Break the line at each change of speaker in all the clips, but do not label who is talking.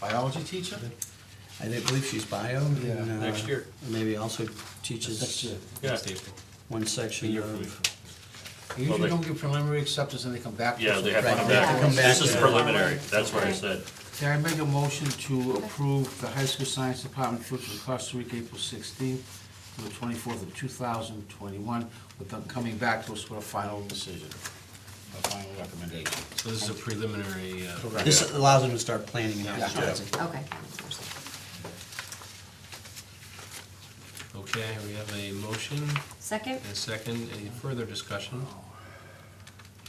biology teacher?
I didn't believe she's bio. and,
Yeah.
uh,
Next year.
Maybe also
Next
teaches
year.
Yeah.
one
A
section
year from
of.
You
Well,
usually
they-
don't give preliminary acceptance and they come back. to
Yeah,
us
they
with
have to
Right,
come
they have to come
back.
back.
This is preliminary, that's what I said.
Can I make a motion to approve the high school science department trip to Costa Rica, April sixteenth to the twenty-fourth of two thousand twenty-one, with them coming back to us with a final decision, a final recommendation.
So this is a preliminary, uh,
Correct.
This allows them to start planning and
Yeah.
advertising.
Okay.
okay, we have a motion
Second?
and a second, any further discussion?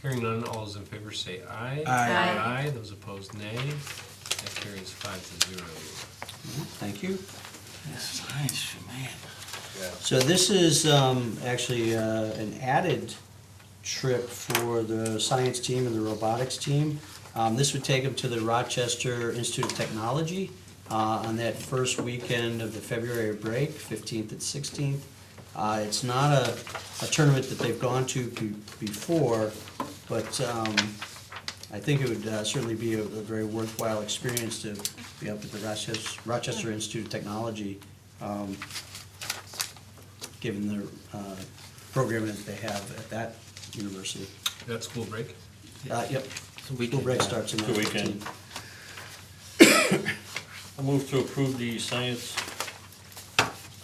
Hearing none, all those in favor say aye.
Aye.
Aye.
Aye, those opposed nay. That carries five to zero.
Thank you.
Science, man.
So this is um, actually uh, an added trip for the science team and the robotics team. Um, This would take them to the Rochester Institute of Technology uh, on that first weekend of the February break, 15th and 16th. Uh, It's not a a tournament that they've gone to be- before, but um, I think it would uh, certainly be a a very worthwhile experience to be up at the Rochester Rochester Institute of Technology um, given the uh, program that they have at that university.
That school break?
Uh, Yep. School break starts in
It's a
the
weekend.
weekend.
I move to approve the science,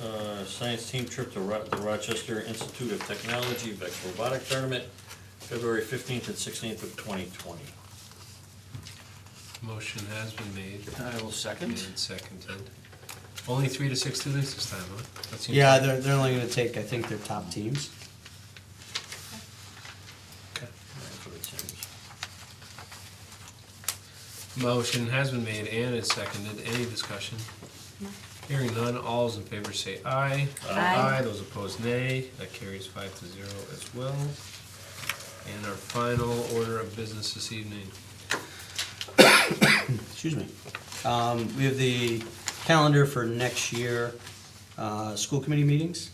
uh, science team trip to Ro- the Rochester Institute of Technology VEX Robotic Tournament, February fifteenth and sixteenth of twenty twenty.
Motion has been made
I will
and
second.
seconded. Only three to six students this time, huh? That seems
Yeah,
like-
they're, they're only gonna take, I think, their top teams.
Motion has been made and is seconded. Any discussion? Hearing none, all those in favor say aye.
Aye.
Those opposed, nay. That carries five to zero as well. And our final order of business this evening.
excuse me. Um, we have the calendar for next year, uh, school committee meetings.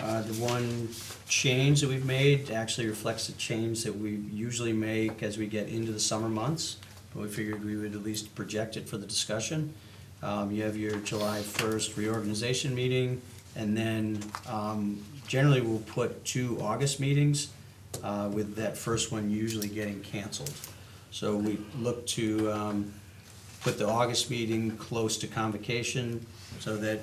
Uh, the one change that we've made actually reflects a change that we usually make as we get into the summer months. But we figured we would at least project it for the discussion. Um, you have your July first reorganization meeting, and then, um, generally we'll put two August meetings, uh, with that first one usually getting canceled. So we look to um, put the August meeting close to convocation, so that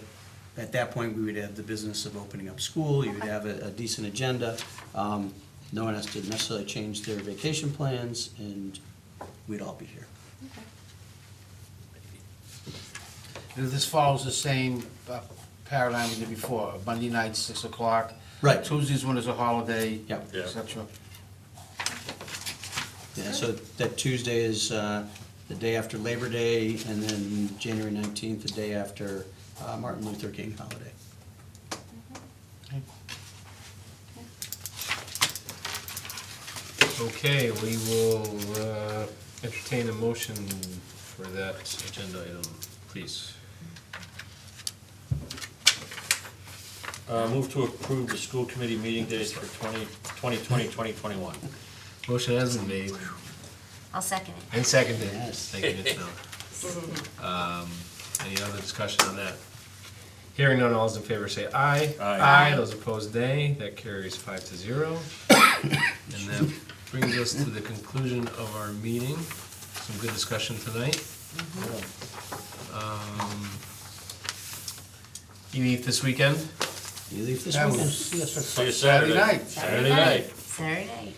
at that point, we would have the business of opening up school, you would have a a decent agenda. Um, No one has to necessarily change their vacation plans, and we'd all be here.
And This follows the same uh, paradigm we did before, Monday night, six o'clock.
Right.
Tuesdays when there's a holiday.
Yep.
Yeah.
Et cetera.
Yeah, so that Tuesday is uh, the day after Labor Day, and then January 19th, the day after uh, Martin Luther King holiday.
Okay, we will uh, entertain a motion for that agenda item, please.
Uh, move to approve the school committee meeting dates for 20 2020, 2021.
Motion has been made
I'll second it.
and seconded.
Yes.
Thank you, Mitch Miller. Um, Any other discussion on that? Hearing none, all those in favor say aye.
Aye.
Those opposed, nay. That carries five to zero. And that brings us to the conclusion of our meeting. Some good discussion tonight. Um, You eat this weekend?
You leave this
That
weekend?
was- yes, that's
See you
Saturday
Saturday.
night.
Saturday night.
Saturday night.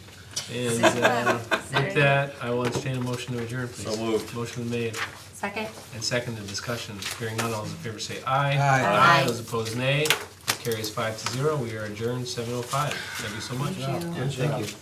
And uh,
Saturday.
with that, I will entertain a motion to adjourn, please.
So moved.
Motion made.
Second?
And second, the discussion, hearing none, all those in favor say aye.
Aye.
Those opposed, nay. It carries five to zero. We are adjourned seven oh five. Thank you so much.
Thank you.
Yeah, Thank you.